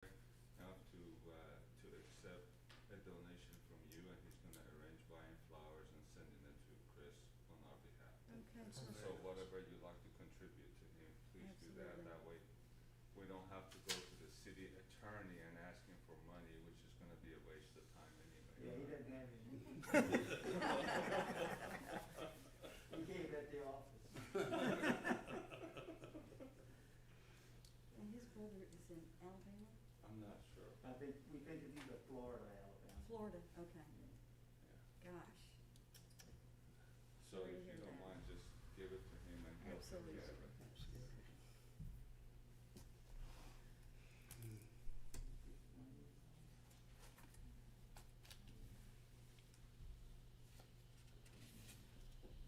uh, buying flowers and sending it to Chris on our behalf. Okay, so, That's So Very nice. whatever you'd like to contribute to him, please do that, Absolutely. that way we don't have to go to the city attorney and ask him for money, which is gonna be a waste of time anyway. Yeah, he doesn't have any needs. He gave at the office. and his brother is in Alabama, I'm not sure. I think, we think of you as Florida, Alabama. Florida, okay, gosh, So Sorry to if you hear don't that. mind, just give it to him and he'll take absolutely. care of it.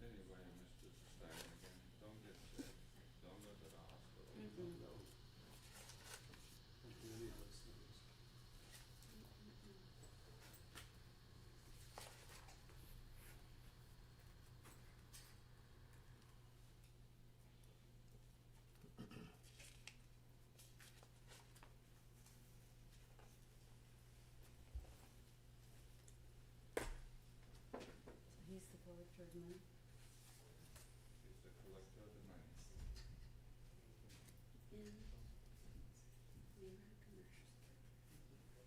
Anyway, Mr. Stein, again, don't get sick, don't go to the hospital. Mm-mm. So he's the collector of money? He's the collector of the money. in the American National.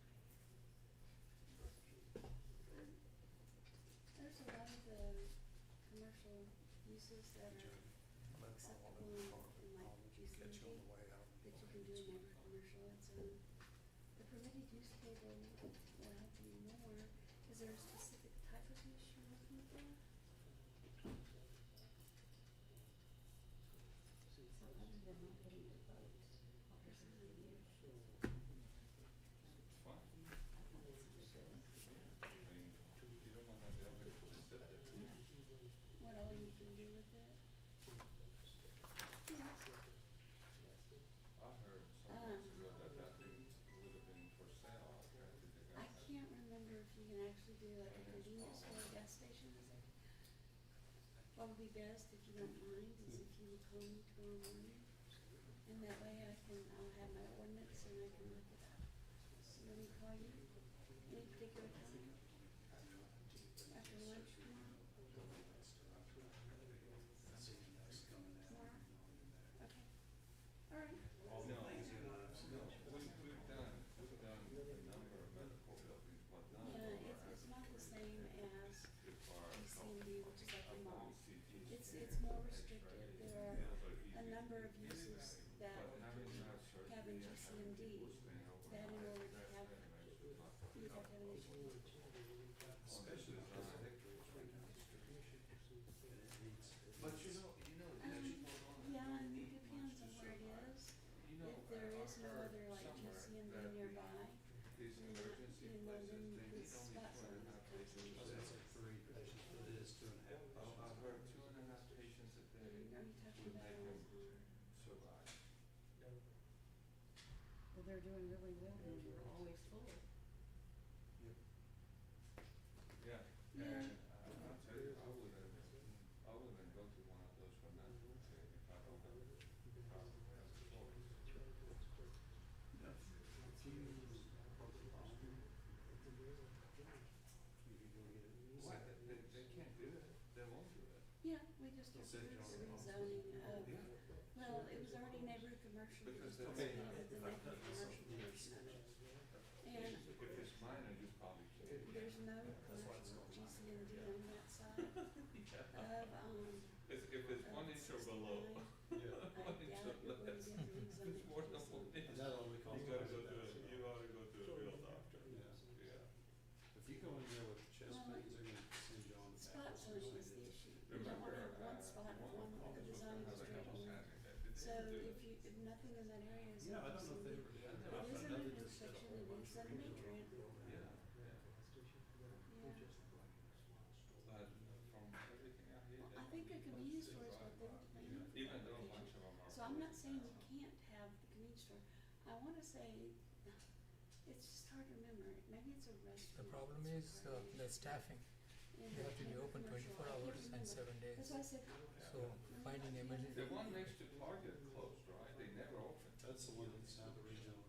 There's a lot of the commercial uses that are acceptable in like G-seventy, that you can do in every commercial, it's a, the permitted use table will help you more. Is there a specific type of use you're looking for? So other than not getting to vote, what is it that you- It's fine. I mean, you don't wanna be able to sit there. What all you can do with it? Yeah. I heard some Um. months ago that that thing would have been for sale out there. Did they I have that? can't remember if you can actually do like a convenience store, or gas station, is it? What would be best if you don't mind is if you would call me tomorrow morning, and that way I can, I'll have my ordinance and I can look it up. So let me call you, any particular time? After lunch tomorrow? Tomorrow? Okay, alright, No, we, we've done, we've done a number of medical buildings, but none of them yeah, are it's, it's not the same as required. DCMD, which is like the mall. It's, It's, it's more restricted, there are a number of uses that have in GCMD that in order to have, meet that definition. But you know, you know, Um, actually going on and doing Yeah, and it these depends on ones is so high. where it is, You know, if I- I there is no heard other like somewhere GCMD that the- nearby, These emergency you know, places, they then need only these two and a spots on half patients. So that's like three patients, but it is two and a half Oh, patients. I've heard two and a half patients a are you, day are you talking would about? make them survive. Well, they're doing really well, and they're always full. Yeah, Yeah. and I- I'll tell you, I wouldn't, I wouldn't go to one of those for nothing if I don't have, if I don't have a choice. If you approach the bomb, you could go get it. Why, they, they, they can't do it, they won't do it. Yeah, we just have to do some zoning of, well, it was already neighborhood commercial, we Because just they- talked about the neighborhood commercial portion of it. And If it's minor, you probably can't. there's no commercial GCMD on that side of, um, It's, if it's one inch or below, I doubt one it inch or would be less, it's more than one inch. That only costs. You gotta go to a, you oughta go to a real doctor, yeah. If you go in there with chest pains, they're gonna send you on the Spot back. zoning is the issue. You don't Remember, wanna have uh, one spot, one one, of the the design how is they almost tricky. had it, that they So didn't do if it. you, if nothing in that area is. Yeah, I don't know if they GCMD. ever did. It It is an infection, it is a Another discussion. nutrient, Yeah, yeah, yeah. but uh, Uh, from everything I hear. Well, I that think a they convenience store survive. is what they were planning for Even though a bunch location. of them are. So I'm not closed saying now. you can't have the convenience store, I wanna say, it's just hard to remember, maybe it's a restaurant. The problem it's is a uh, brand, the staffing. and You have to be it's open commercial. twenty-four I can't hours and remember. seven days. That's why I said, So finding The emergency. The one next to Target closed, right? They never opened. That's the one that's now the regional